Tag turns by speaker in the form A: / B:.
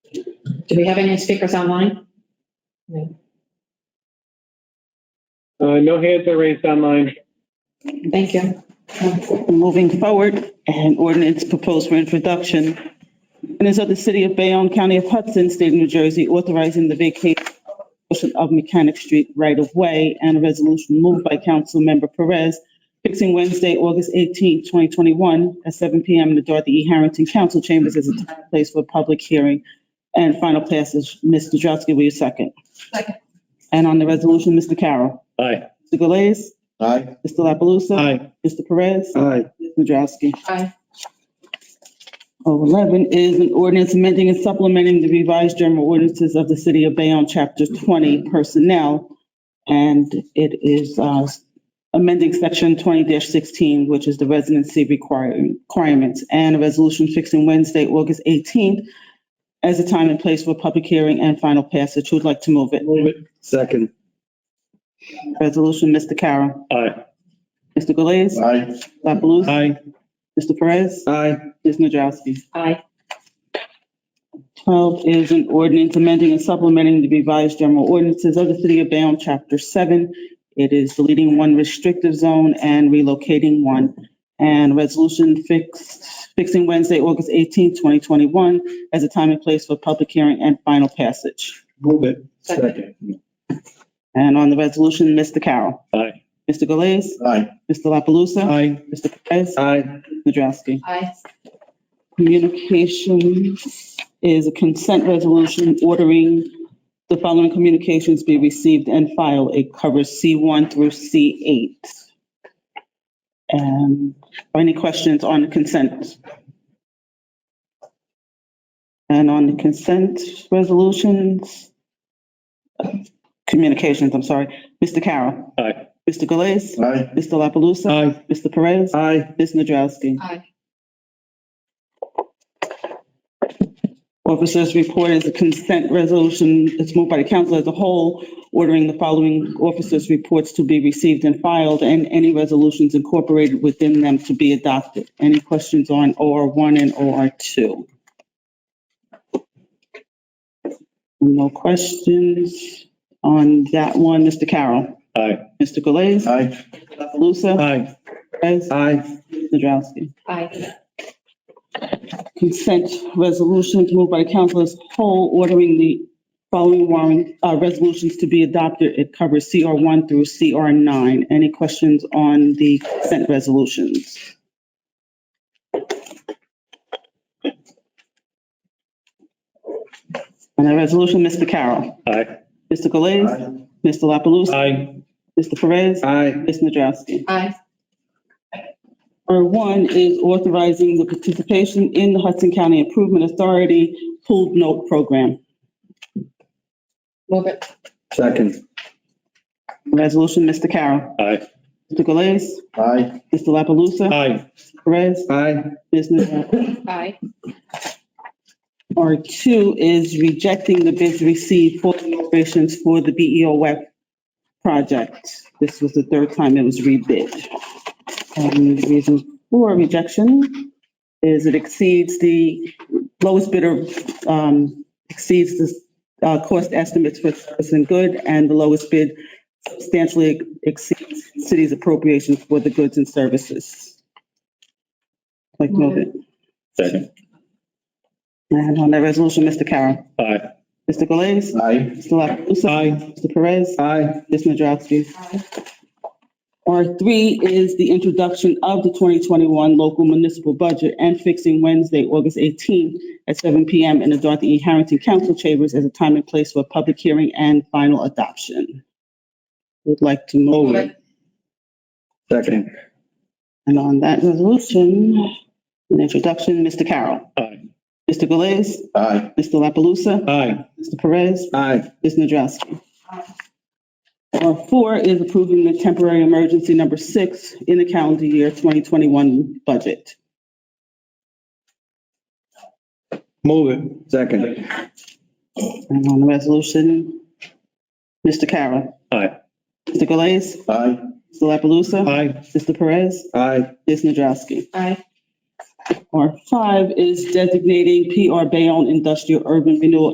A: Do we have any speakers online?
B: Uh, no hands are raised online.
A: Thank you.
C: Moving forward, an ordinance proposed for introduction. And it's of the city of Bayonne, county of Hudson, state of New Jersey, authorizing the vacation of Mechanic Street right of way and a resolution moved by Councilmember Perez fixing Wednesday, August 18, 2021, at 7 PM in the Dorothy E. Harrington Council Chambers as a time and place for a public hearing. And final passage, Ms. Nadrowski, will you second?
D: Second.
C: And on the resolution, Mr. Carroll.
B: Aye.
C: Mr. Galais.
E: Aye.
C: Mr. La Palusa.
B: Aye.
C: Mr. Perez.
B: Aye.
C: Ms. Nadrowski.
A: Aye.
C: Oh, 11 is an ordinance amending and supplementing the revised general ordinances of the city of Bayonne, chapter 20 personnel. And it is uh, amending section 20-16, which is the residency require- requirements, and a resolution fixing Wednesday, August 18th as a time and place for public hearing and final passage. Who'd like to move it?
B: Move it. Second.
C: Resolution, Mr. Carroll.
B: Aye.
C: Mr. Galais.
E: Aye.
C: La Palusa.
B: Aye.
C: Mr. Perez.
B: Aye.
C: Ms. Nadrowski.
A: Aye.
C: 12 is an ordinance amending and supplementing the revised general ordinances of the city of Bayonne, chapter 7. It is deleting one restrictive zone and relocating one. And resolution fixed, fixing Wednesday, August 18, 2021, as a time and place for public hearing and final passage.
B: Move it.
A: Second.
C: And on the resolution, Mr. Carroll.
B: Aye.
C: Mr. Galais.
E: Aye.
C: Mr. La Palusa.
B: Aye.
C: Mr. Perez.
B: Aye.
C: Ms. Nadrowski.
A: Aye.
C: Communications is a consent resolution ordering the following communications be received and filed. It covers C1 through C8. And are any questions on the consent? And on the consent resolutions, communications, I'm sorry, Mr. Carroll.
B: Aye.
C: Mr. Galais.
E: Aye.
C: Mr. La Palusa.
B: Aye.
C: Mr. Perez.
B: Aye.
C: Ms. Nadrowski.
A: Aye.
C: Officers' report is a consent resolution. It's moved by the council as a whole, ordering the following officers' reports to be received and filed, and any resolutions incorporated within them to be adopted. Any questions on OR one and OR two? No questions on that one. Mr. Carroll?
B: Aye.
C: Mr. Galais?
E: Aye.
C: Dr. Lusa?
B: Aye.
C: Perez?
B: Aye.
C: Ms. Nadrowski?
A: Aye.
C: consent resolutions moved by the council as a whole, ordering the following warrant, uh, resolutions to be adopted. It covers CR one through CR nine. Any questions on the consent resolutions? On the resolution, Mr. Carroll,
B: Aye.
C: Mr. Galais,
E: Aye.
C: Mr. La Palusa,
B: Aye.
C: Mr. Perez,
B: Aye.
C: Ms. Nadrowski.
A: Aye.
C: Or one is authorizing the participation in the Hudson County Improvement Authority pooled note program.
A: Move it.
B: Second.
C: Resolution, Mr. Carroll.
B: Aye.
C: Mr. Galais.
E: Aye.
C: Mr. La Palusa.
B: Aye.
C: Perez.
B: Aye.
C: Ms. Nadrowski.
A: Aye.
C: R two is rejecting the bids received for the operations for the BEO web project. This was the third time it was rebid. And the reason for rejection is it exceeds the lowest bidder, um, exceeds the, uh, cost estimates for service and good, and the lowest bid substantially exceeds city's appropriation for the goods and services. Like, move it.
B: Second.
C: And on that resolution, Mr. Carroll.
B: Aye.
C: Mr. Galais.
E: Aye.
C: Mr. La Palusa.
B: Aye.
C: Mr. Perez.
B: Aye.
C: Ms. Nadrowski.
A: Aye.
C: R three is the introduction of the 2021 local municipal budget and fixing Wednesday, August 18th at 7 PM in the Dorothy E. Harrington Council Chambers as a time and place for public hearing and final adoption. Would like to move
A: Move
C: it.
A: it.
B: Second.
C: And on that resolution, an introduction, Mr. Carroll.
B: Aye.
C: Mr. Galais.
E: Aye.
C: Mr. La Palusa.
B: Aye.
C: Mr. Perez.
B: Aye.
C: Ms. Nadrowski. Or four is approving the temporary emergency number six in the calendar year 2021 budget.
B: Move it. Second.
C: And on the resolution, Mr. Carroll,
B: Aye.
C: Mr. Galais,
E: Aye.
C: Mr. La Palusa,
B: Aye.
C: Mr. Perez,
B: Aye.
C: Ms. Nadrowski.
A: Aye.
C: Or five is designating PR Bayonne Industrial Urban Renewal